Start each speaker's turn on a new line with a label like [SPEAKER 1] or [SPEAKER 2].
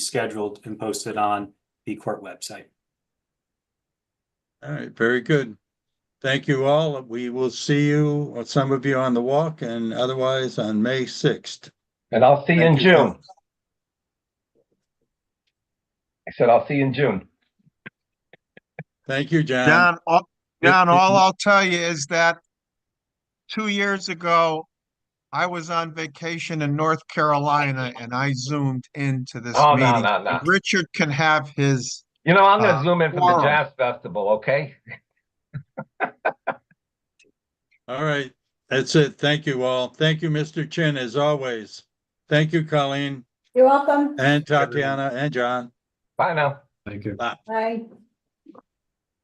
[SPEAKER 1] scheduled and posted on the court website.
[SPEAKER 2] All right, very good. Thank you all. We will see you, or some of you on the walk and otherwise on May sixth.
[SPEAKER 3] And I'll see you in
[SPEAKER 2] Thank you.
[SPEAKER 3] June. I said, I'll see you in June.
[SPEAKER 2] Thank you, John.
[SPEAKER 4] John, all,
[SPEAKER 2] it-
[SPEAKER 4] John,
[SPEAKER 2] it-
[SPEAKER 4] all I'll tell you is that two years ago, I was on vacation in North Carolina and I zoomed into this
[SPEAKER 3] Oh, no,
[SPEAKER 4] meeting.
[SPEAKER 3] no, no.
[SPEAKER 4] Richard can have his,
[SPEAKER 3] You know, I'm gonna
[SPEAKER 4] Uh,
[SPEAKER 3] zoom in from the
[SPEAKER 4] tomorrow.
[SPEAKER 3] Jazz Festival, okay?
[SPEAKER 2] All right, that's it. Thank you all. Thank you, Mr. Chin, as always. Thank you, Colleen Uh,
[SPEAKER 5] You're welcome.
[SPEAKER 2] and Tatiana and John.
[SPEAKER 3] Bye now.
[SPEAKER 1] Thank you.
[SPEAKER 5] Bye.